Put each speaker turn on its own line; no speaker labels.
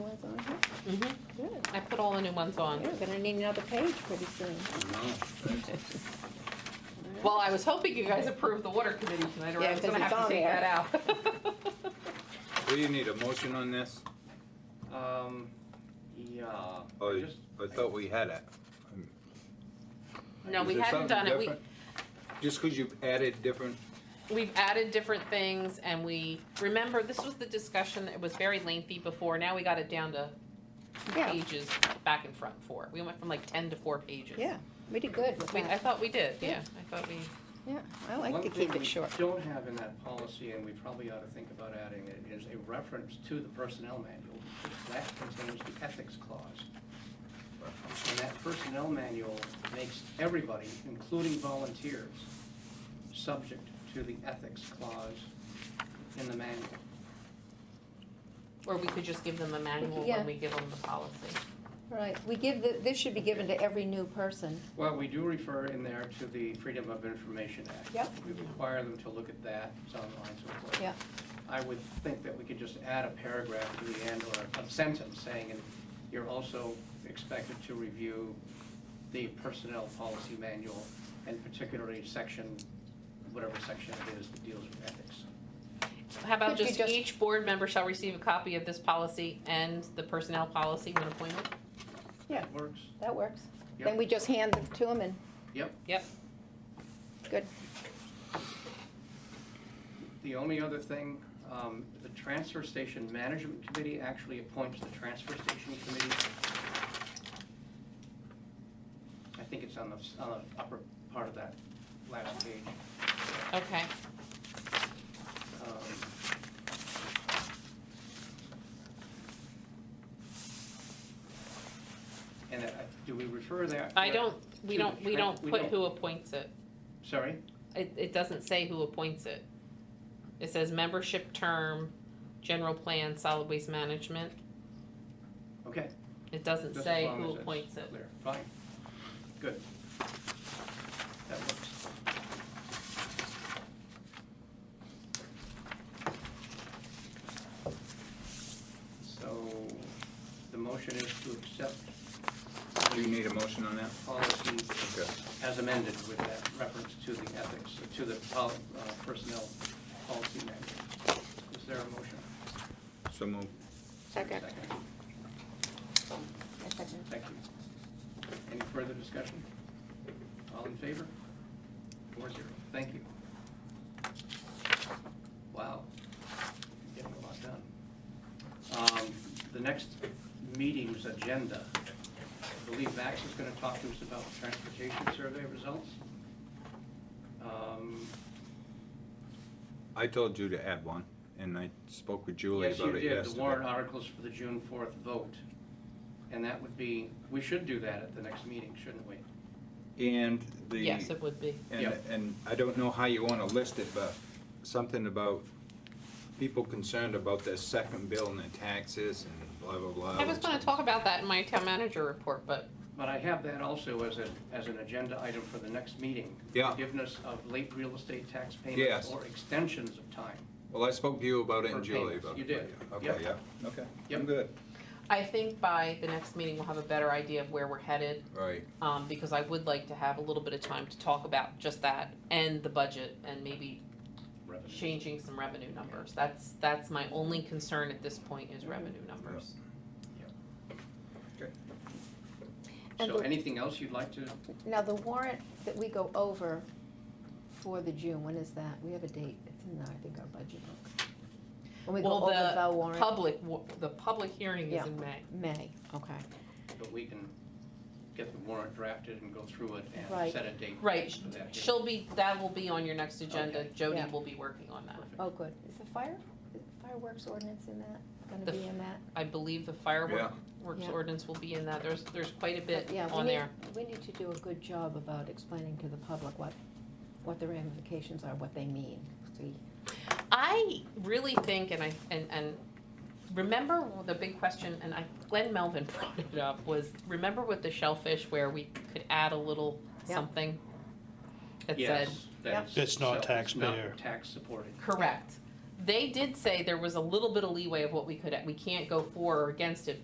Mm-hmm.
all the new ones on.
You're gonna need another page pretty soon.
Well, I was hoping you guys approved the water committee tonight, or
Yeah,
I was
'cause
gonna
it's
have
on
to take
there.
that out.
Do you need a motion on this?
Um, yeah.
Oh,
just-
I thought we had it.
No,
Is
we
there
hadn't
something
done it. We,
different? Just because you've added different,
we've added different things and we, remember, this was the discussion, it was very lengthy before, now we got it down to two
Yeah.
pages back and front, four. We went from like ten to four pages.
Yeah, we did good with
We, I
that.
thought we did,
Yeah.
yeah, I thought we,
Yeah, I like to keep it short.
One thing we don't have in that policy, and we probably ought to think about adding it, is a reference to the personnel manual. That contains the ethics clause. And that personnel manual makes everybody, including volunteers, subject to the ethics clause in the manual.
or we could just give them the manual
Yeah.
when we give them the policy.
Right, we give, the- this should be given to every new person.
Well, we do refer in there to the Freedom of Information Act.
Yep.
We require them to look at that, so on and so forth.
Yeah.
I would think that we could just add a paragraph to the end or a sentence saying, and you're also expected to review the personnel policy manual and particularly section, whatever section it is that deals with ethics.
How about
Could you
just
just-
each board member shall receive a copy of this policy and the personnel policy when appointed?
Yeah,
That works?
that works. Then
Yep.
we just hand it to them and,
Yep.
Yep,
good.
The only other thing, um, the Transfer Station Management Committee actually appoints the Transfer Station Committee. I think it's on the, s- on the upper part of that last page.
okay.
Um, And that- do we refer that?
I don't, we
To
don't,
the
we
tran-
don't
we
put
don't-
who appoints it.
Sorry?
It, it doesn't say who appoints it. It says membership term, general plan, solid waste management.
Okay.
It doesn't
just as
say
long as
who
it's
appoints it.
Clear, fine. Good. That works. So the motion is to accept
do you need a motion on that?
policy
Okay.
as amended with that reference to the ethics, to the pol- uh, personnel policy manual. Is there a motion?
So move.
Second. I second.
Thank you. Any further discussion? All in favor? Four zero. Thank you. Wow. Getting a lot done. Um, The next meeting's agenda, I believe Max is going to talk to us about the transportation survey results. Um,
I told you to add one, and I spoke with Julie
Yes, you
about it yesterday.
did, the warrant articles for the June fourth vote. And that would be, we should do that at the next meeting, shouldn't we?
And the.
Yes, it would be.
And,
Yeah.
and I don't know how you wanna list it, but something about people concerned about their second bill and the taxes and blah, blah, blah.
I was gonna talk about that in my town manager report, but
But I have that also as a, as an agenda item for the next meeting.
Yeah.
Forgiveness of late real estate tax payments
Yes.
or extensions of time.
Well, I spoke to you about it
For
and Julie
payments,
about it.
you did.
Okay,
Yep.
yeah, okay, I'm
Yep.
good,
I think by the next meeting, we'll have a better idea of where we're headed.
right,
Um, because I would like to have a little bit of time to talk about just that and the budget and maybe changing some revenue numbers. That's, that's my only concern at this point is revenue numbers.
And
So
the-
anything else you'd like to,
Now, the warrant that we go over for the June, when is that? We have a date. It's in, I think, our budget book. When we go
Well,
over
the
the warrant,
Public, wa- the public hearing is
Yeah.
in May.
May, okay.
but we can get the warrant drafted and go through it and
Right.
set a date.
Right,
for that.
she'll be, that will be on your next agenda,
Okay.
Jody
Yeah.
will be working on that.
Perfect.
Oh, good. Is the fire, is the fireworks ordinance in that, gonna
The
be in that?
I believe the fireworks works
Yeah.
ordinance will be in that, there's, there's quite a bit
Yeah, we
on
need-
there.
We need to do a good job about explaining to the public what, what the ramifications are, what they mean. See,
I really think, and I, and, and remember the big question, and I, Glenn Melvin brought it up, was remember with the shellfish where we could add a little
Yeah.
something? That said,
Yes, that's.
It's not
so it's not
taxpayer.
Tax supported.
correct. They did say there was a little bit of leeway of what we could, we can't go for or against it,